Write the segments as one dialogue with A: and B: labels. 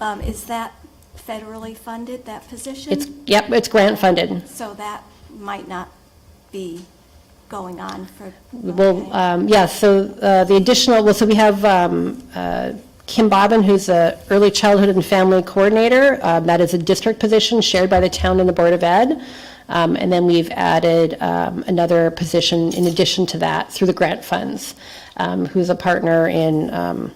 A: Um, Is that federally funded, that position?
B: It's, yep, it's grant funded.
A: So that might not be going on for.
B: Well,
A: okay.
B: um, yeah, so uh, the additional, well, so we have um, uh, Kim Bobbin, who's a early childhood and family coordinator. Um, That is a district position shared by the town and the Board of Ed. Um, And then we've added um, another position in addition to that through the grant funds, um, who's a partner in, um,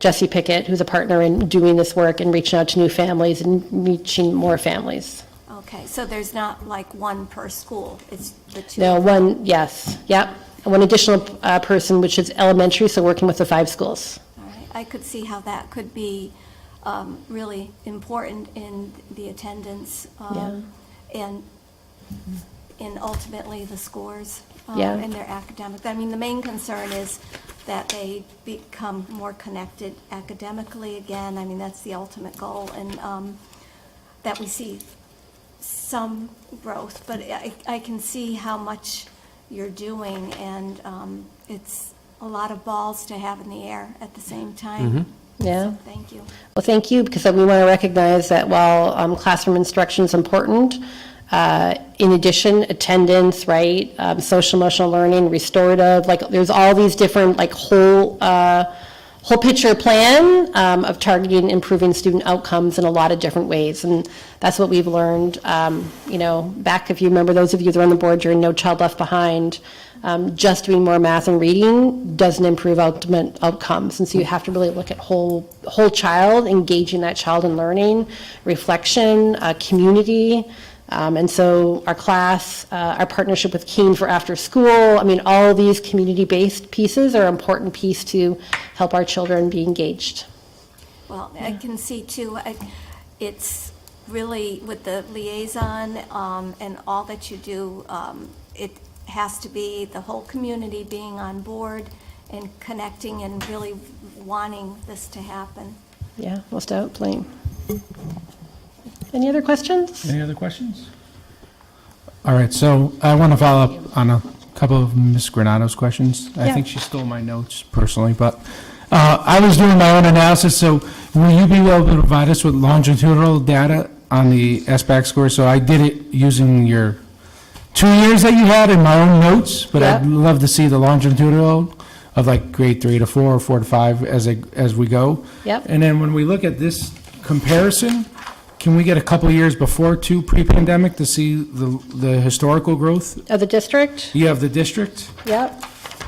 B: Jesse Pickett, who's a partner in doing this work and reaching out to new families and reaching more families.
A: Okay, so there's not like one per school, it's the two?
B: No, one, yes, yep. And one additional uh, person, which is elementary, so working with the five schools.
A: All right, I could see how that could be um, really important in the attendance um, and, and ultimately the scores um,
B: Yeah.
A: and their academic. I mean, the main concern is that they become more connected academically again. I mean, that's the ultimate goal, and um, that we see some growth, but I, I can see how much you're doing, and um, it's a lot of balls to have in the air at the same time.
B: Yeah.
A: So, Thank you.
B: Well, thank you, because we want to recognize that while um, classroom instruction is important, uh, in addition, attendance, right, um, social emotional learning, restorative, like, there's all these different, like, whole, uh, whole picture plan um, of targeting and improving student outcomes in a lot of different ways. And that's what we've learned, um, you know, back, if you remember, those of you that are on the board during No Child Left Behind, um, just doing more math and reading doesn't improve ultimate outcomes. And so you have to really look at whole, whole child, engaging that child in learning, reflection, uh, community. Um, and so our class, uh, our partnership with Keen for after school, I mean, all these community-based pieces are important piece to help our children be engaged.
A: Well, I can see too, I- it's really with the liaison um, and all that you do, um, it has to be the whole community being on board and connecting and really wanting this to happen.
B: Yeah, most definitely. Any other questions?
C: Any other questions? All right, so I want to follow up on a couple of Ms. Granado's questions. I
B: Yeah.
C: think she stole my notes personally, but uh, I was doing my own analysis, so will you be able to provide us with longitudinal data on the SBAC score? So I did it using your two years that you had in my own notes, but I'd
B: Yeah.
C: love to see the longitudinal of like grade three to four, or four to five as, I- as we go.
B: Yep.
C: And then when we look at this comparison, can we get a couple of years before to pre-pandemic to see the, the historical growth?
B: Of the district?
C: You have the district,
B: Yep,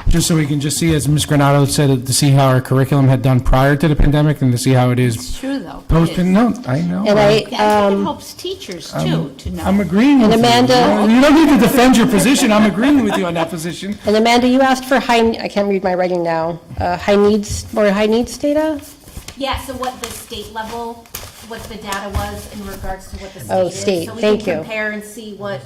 C: just so we can just see, as Ms. Granado said, to see how our curriculum had done prior to the pandemic and to see how it is
D: It's true, though.
C: post, no, I know.
B: and I,
D: Yeah, I think it
B: um,
D: helps teachers, too, to
C: I'm
D: know.
C: agreeing with you.
B: Amanda-
C: You don't need to defend your position, I'm agreeing with you on that position.
B: and Amanda, you asked for high, I can't read my writing now, uh, high needs, more high needs data?
E: Yeah, so what the state level, what the data was in regards to what the state
B: Oh,
E: is.
B: state,
E: So we
B: thank
E: can
B: you.
E: compare and see what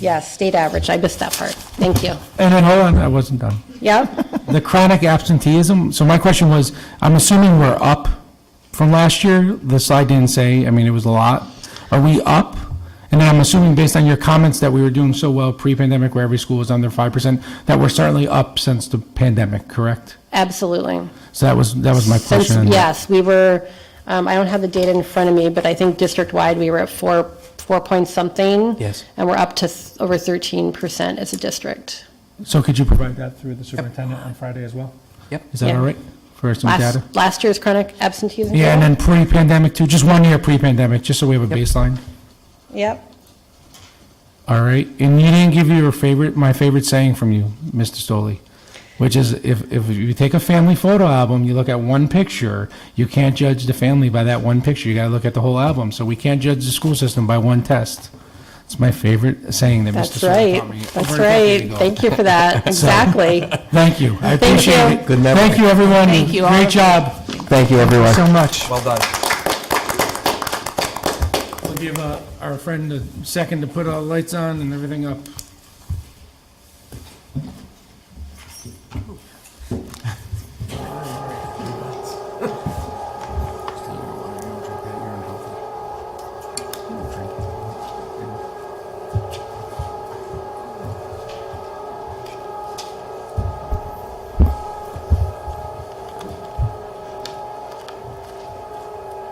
B: Yes, state average, I missed that part, thank you.
C: And then, hold on, I wasn't done.
B: Yep,
C: The chronic absenteeism, so my question was, I'm assuming we're up from last year? The slide didn't say, I mean, it was a lot. Are we up? And then I'm assuming, based on your comments, that we were doing so well pre-pandemic, where every school was under 5%, that we're certainly up since the pandemic, correct?
B: absolutely.
C: So that was, that was my
B: Since-
C: question.
B: Yes, we were, um, I don't have the data in front of me, but I think district-wide, we were at four, four point something.
C: Yes.
B: And we're up to th- over 13% as a district.
C: So could you provide that through the superintendent on Friday as well? Yep. Is that
B: Yeah.
C: all right? For some
B: Last-
C: data?
B: Last year's chronic absenteeism.
C: Yeah, and then pre-pandemic too, just one year pre-pandemic, just so we have a baseline.
B: Yep,
C: All right, and you didn't give your favorite, my favorite saying from you, Mr. Stoley, which is if, if you take a family photo album, you look at one picture, you can't judge the family by that one picture. You gotta look at the whole album. So we can't judge the school system by one test. It's my favorite saying that Mr.
B: that's
C: Stoley
B: right,
C: taught me.
B: that's
C: over a decade
B: right.
C: ago.
B: Thank you for that, exactly.
C: Thank you. I
B: Thank you.
C: appreciate it.
F: Good memory.
C: Thank you, everyone.
D: Thank you all.
C: Great job.
F: Thank you, everyone.
C: So much.
F: Well done.
C: We'll give uh, our friend a second to put all the lights on and everything up.